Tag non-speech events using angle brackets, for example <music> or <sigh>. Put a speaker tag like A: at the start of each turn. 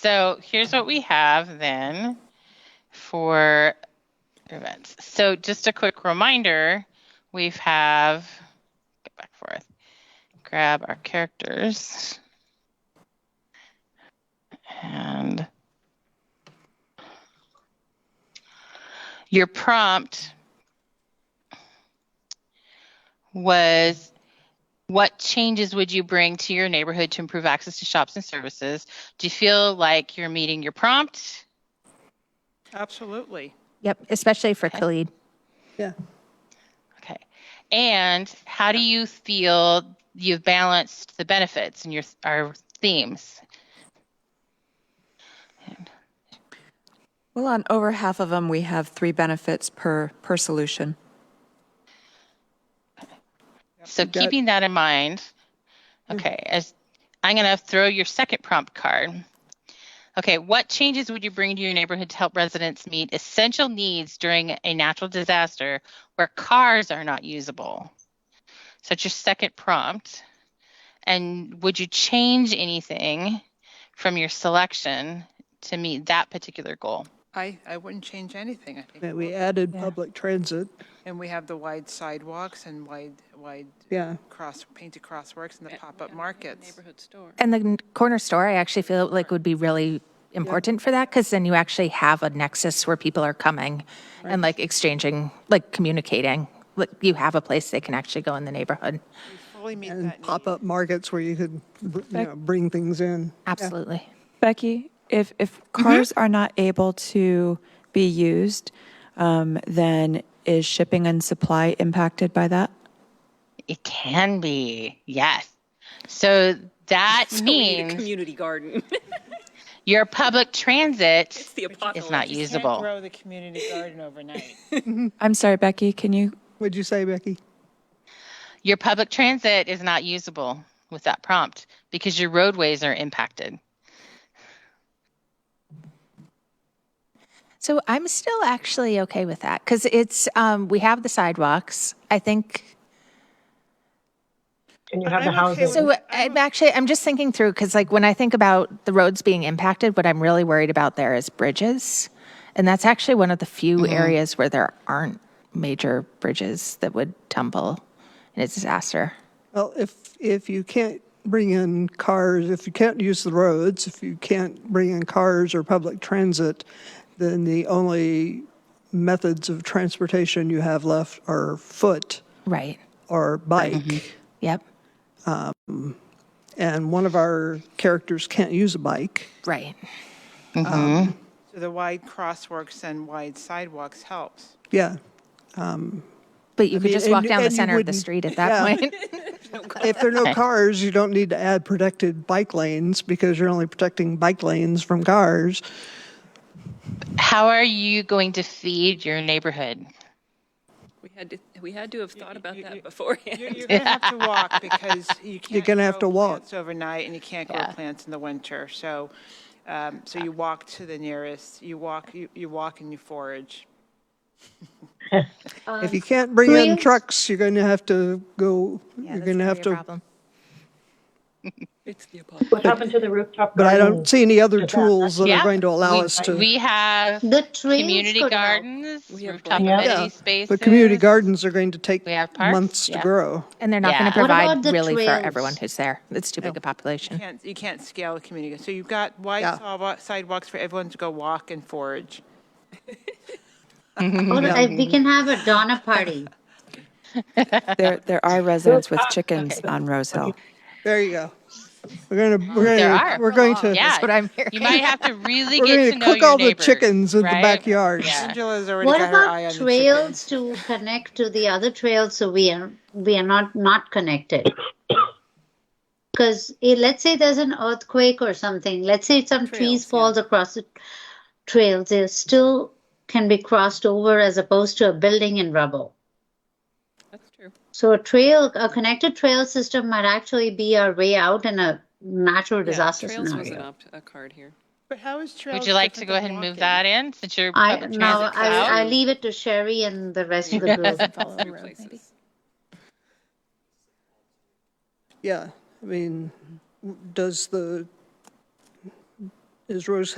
A: So here's what we have then for events. So just a quick reminder, we've have, get back forth, grab our characters. And your prompt was what changes would you bring to your neighborhood to improve access to shops and services? Do you feel like you're meeting your prompt?
B: Absolutely.
C: Yep, especially for
A: Okay.
C: Khalid.
D: Yeah.
A: Okay. And how do you feel you've balanced the benefits in your our themes?
E: Well, on over half of them, we have three benefits per, per solution.
A: So
D: got-
A: keeping that in mind, okay, as I'm going to throw your second prompt card. Okay, what changes would you bring to your neighborhood to help residents meet essential needs during a natural disaster where cars are not usable? So it's your second prompt. And would you change anything from your selection to meet that particular goal?
B: I, I wouldn't change anything, I think.
D: That we added public transit.
B: And we have the wide sidewalks and wide, wide
D: Yeah.
B: cross, painted crossworks and the pop-up markets.
C: And the n- corner store, I actually feel like would be really important for that because then you actually have a nexus where people are coming and like exchanging, like communicating. Like you have a place they can actually go in the neighborhood.
B: Fully meet
D: And
B: that need.
D: pop up markets where you could, br- you know, bring things in.
C: Absolutely.
F: Becky, if, if cars are not able to be used, um, then is shipping and supply impacted by that?
A: It can be, yes. So that means
G: community garden. <laughs>
A: your public transit
G: it's the apocalypse.
A: is not usable.
H: grow the community garden overnight.
F: I'm sorry, Becky, can you,
D: What'd you say, Becky?
A: Your public transit is not usable with that prompt because your roadways are impacted.
C: So I'm still actually okay with that because it's, um, we have the sidewalks. I think
I: And you have the houses.
C: So I'm actually, I'm just thinking through, because like when I think about the roads being impacted, what I'm really worried about there is bridges. And that's actually one of the few
D: Mm-hmm.
C: areas where there aren't major bridges that would tumble in a disaster.
D: Well, if, if you can't bring in cars, if you can't use the roads, if you can't bring in cars or public transit, then the only methods of transportation you have left are foot
C: Right.
D: or bike.
C: Yep.
D: And one of our characters can't use a bike.
C: Right.
B: <laughs> So the wide crossworks and wide sidewalks helps.
D: Yeah.
C: But you could
D: mean,
C: just
D: and
C: walk
D: you-
C: down the
D: and you
C: center of the
D: wouldn't-
C: street
D: <laughs>
C: at that
D: yeah.
C: point.
D: If there are no cars, you don't need to add protected bike lanes because you're only protecting bike lanes from cars.
A: How are you going to feed your neighborhood?
G: We had to, we had to have thought about that beforehand.
B: You're you're gonna have to walk because you can't.
D: gonna have
B: grow
D: to walk.
B: plants Overnight and you can't grow plants in the winter. So, um, so you walk to the nearest, you walk, you, you walk and you forage.
D: If you can't bring in trucks, you're going to have to go, you're going to have to,
G: it's the apocalypse.
I: What happened to the rooftop
D: but I
H: Oh.
I: garden?
D: don't see any other tools that
A: Yeah,
D: are going to allow
A: we,
D: us to.
A: We have
H: The trees
A: community
H: could help.
A: gardens,
G: have
A: rooftop
G: blanket-
A: amenity
D: Yeah,
A: spaces.
D: But community gardens are going to take
A: We have parks,
D: months to
A: yeah.
D: grow.
C: And they're not going
A: Yeah.
C: to
A: What
H: about
C: provide
H: the
C: really for
H: trails?
C: everyone who's there. It's too big a population.
B: Can't, you can't scale the community. So you've got wide
D: Yeah.
B: sidewalk- sidewalks for everyone to go walk and forage.
H: Or uh, we can have a Donna party.
F: there, there are residents with chickens on Rose Hill.
D: There you go. We're going to, we're going
A: There
D: to,
A: are.
D: we're going to,
A: yeah,
C: That's what I'm hearing.
A: You might have to really
D: we're
A: get
D: going
A: to
D: to
A: know
D: cook
A: your
D: all the
A: neighbors,
D: chickens in the
A: right?
D: backyards.
A: Yeah.
B: Angela's already
H: What
B: got her eye on
H: about
B: the chicken.
H: trails to connect to the other trails so we are we are not not connected? Because eh, let's say there's an earthquake or something. Let's say some trees falls across the trails. They still can be crossed over as opposed to a building in rubble.
G: That's true.
H: So a trail, a connected trail system might actually be our way out in a natural disaster
G: Trails was an
H: scenario.
G: opt, a card here.
B: But how is trails?
A: Would you like to
B: different
A: go
B: than
A: ahead and move
B: walking?
A: that in since your
H: I
A: public
H: now
A: transit's out?
H: I, I leave it to Sherry and the rest of
G: <laughs>
H: the group.
G: Places.
D: Yeah, I mean, w- does the, is Rose